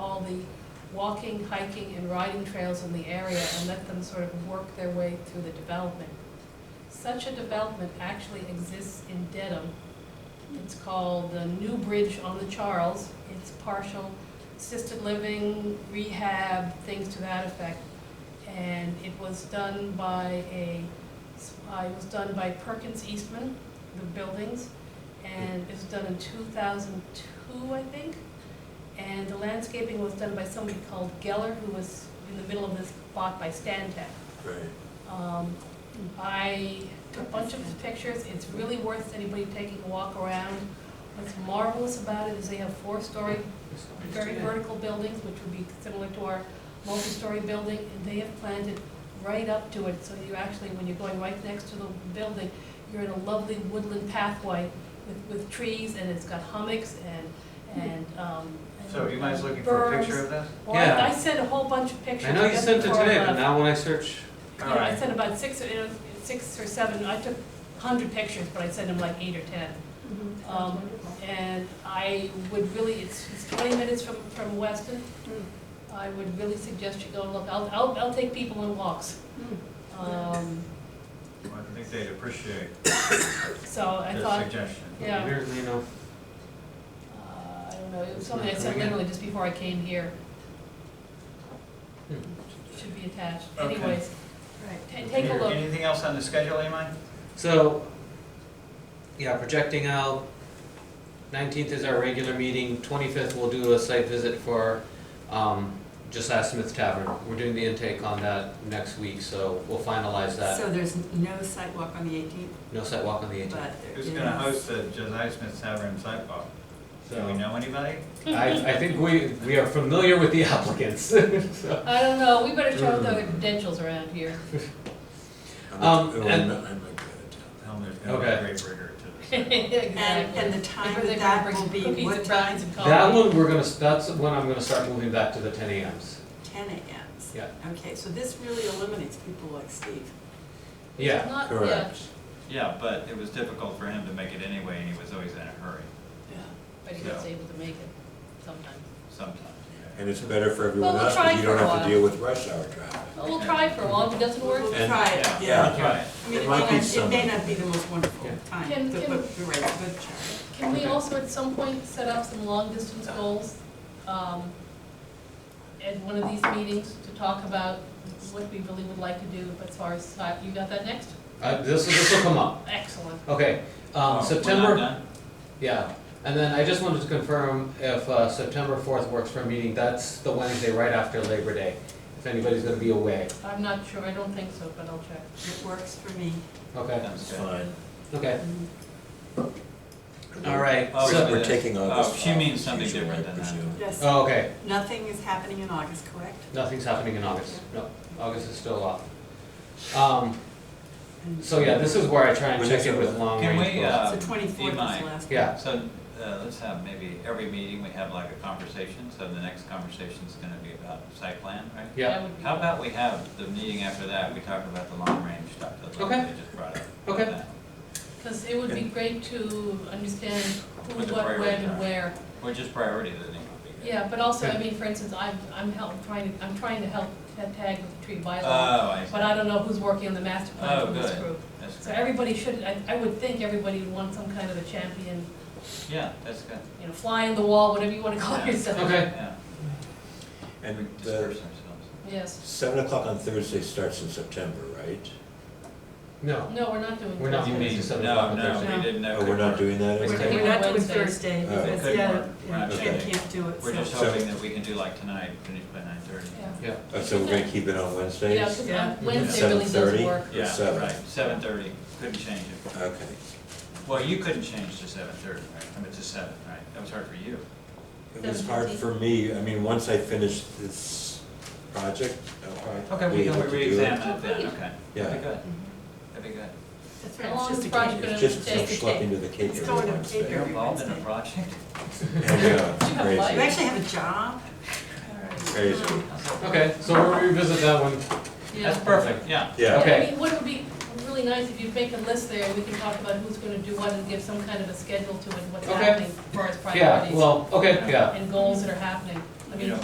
walking, hiking, and riding trails in the area and let them sort of work their way through the development. Such a development actually exists in Dedham. It's called the New Bridge on the Charles. It's partial assisted living, rehab, things to that effect. And it was done by a, uh, it was done by Perkins Eastman, the buildings. And it was done in two thousand two, I think. And the landscaping was done by somebody called Geller, who was in the middle of this, bought by Stantec. Right. Um, I took a bunch of pictures, it's really worth anybody taking a walk around. What's marvelous about it is they have four-story, very vertical buildings, which would be similar to our multi-story building, and they have planted right up to it, so you actually, when you're going right next to the building, you're in a lovely woodland pathway with, with trees, and it's got hummocks and, and, um. So you guys looking for a berms. picture of this? Well, I- I Yeah. sent a whole bunch of pictures. I know you just sent it before I today, but left. now when I search, You All know, I right. sent about six, you know, six or seven, I took hundred pictures, but I sent them like eight or ten. Mm-hmm. Um, and I would really, it's, it's twenty minutes from, from Weston. I would really suggest you go and look, I'll, I'll, I'll take people on walks. Mm-hmm. Um, Well, I think they'd appreciate so I this thought, suggestion. Yeah. weirdly enough, uh, I don't know, it was something I sent literally just before I came here. Hmm. Should be attached, Okay. anyways, ta- take a Peter, look. Anything else on the schedule, Imai? So, yeah, projecting out, nineteenth is our regular meeting, twenty-fifth we'll do a site visit for, um, just ask Smith Tavern. We're doing the intake on that next week, so we'll finalize that. So there's no sidewalk on the eighteenth, No site walk on the eighteenth. but there is. Who's gonna host the Josiah Smith Tavern sidewalk? Do we So, know anybody? I, I think we, we are familiar with the applicants, so. I don't know, we better show the credentials around here. Um, It would- and- oh, I might be out of town. Tell them there's gonna be a Okay. great rigor to this. And, and Exactly. the time They of that bring will be cookies what and time? brownies and coffee. That one, we're gonna, that's when I'm gonna start moving back to the ten AMs. Ten AM. Yeah. Okay, so this really eliminates people like Steve. Yeah, Not- Uh, yeah. Correct. Yeah, but it was difficult for him to make it anyway, and he was always in a hurry But he was able to make it sometimes. sometimes. And it's better for everyone we'll else, try because you don't for a have to while. deal with rush hour traffic. But we'll try for a while, if it doesn't work, We'll And- try it, Yeah. yeah. Um, Right. I mean, It it might may be not, it may some- not be the most wonderful Yeah. time, Can- but, can- but you're right, but try. Can we also at some point set up some long-distance goals um, at one of these meetings to talk about what we really would like to do as far as, si- you got that next? uh, this, this will come up. Excellent. Okay, Oh, we're um, not September, done? yeah, and then I just wanted to confirm if, uh, September fourth works for a meeting, that's the Wednesday right after Labor Day, if anybody's gonna be away, I'm not sure, I don't think so, but I'll check. It works for me. okay, That's It's good. fine. okay, all right, Oh, so, yeah. We're taking all Oh, this. she off, means as something usual, I different than that. presume. Yes, oh, okay, nothing is happening in August, correct? nothing's happening in August, no, August is still off. Um, so yeah, this is where I try and When check is in it? with long Can range we, goals, uh, So twenty-fourth is Imai. last. yeah, So, uh, let's have maybe every meeting, we have like a conversation, so the next conversation's gonna be about site plan, right? yeah, That would be- How about we have the meeting after that, we talk about the long range stuff that Okay. they just brought up. Okay. That. Because it would be great to understand who, What the what, when, priorities and are. where. Or just priorities, I think would be good. Yeah, but also, I Okay. mean, for instance, I'm, I'm help, trying, to I'm trying to help ta- tag with the tree bylaw, Oh, I see. but I don't know who's working on the master plan Oh, from this good. group. That's So good. everybody should, I, I would think everybody would want some kind of a champion, Yeah, that's good. you know, fly on the wall, whatever you wanna call Yeah. yourself. Okay. Yeah. We And disperse the ourselves. Yes. seven o'clock on Thursday starts in September, right? no, No, we're not doing. We're not You doing Thursday. It's mean, just seven no, o'clock on no, Thursday. we didn't know. Oh, we're not doing that? We're anymore? taking- We're not doing Wednesdays. Thursday Oh. because, Good yeah, work. We're yeah, not Ken changing. can't do it, We're just so. So- hoping that we can do like tonight, finish by nine thirty. Yeah, yeah, Oh, So we're gonna keep it on Wednesdays? yeah, 'cause Yeah. on Wednesday really does 7:30? work. Yeah, Seven. right, seven thirty, couldn't change it. Okay. Well, you couldn't change to seven thirty, right? I mean, to seven, right? That was hard for you. It was hard for me, I mean, once I finish this project, I'll Okay, be we able can to do it. re-examine it Oh, then, great. okay. Yeah. That'd be good, that'd be good. That's right, How it's long just is a the cake. project gonna It's take? just some schlepping to the cake It's every going to cake Wednesday. You're involved in a project? Yeah, it's You have life. You crazy, actually have a job? crazy. okay, so we'll revisit that one, Yeah. That's perfect, yeah. Yeah, Yeah, I Okay. mean, what would be really nice if you make a list there, and we can talk about who's gonna do what and give some kind of a schedule to it, what's Okay. happening as far as yeah, priorities well, okay, yeah. and goals that are happening. I mean, Yeah.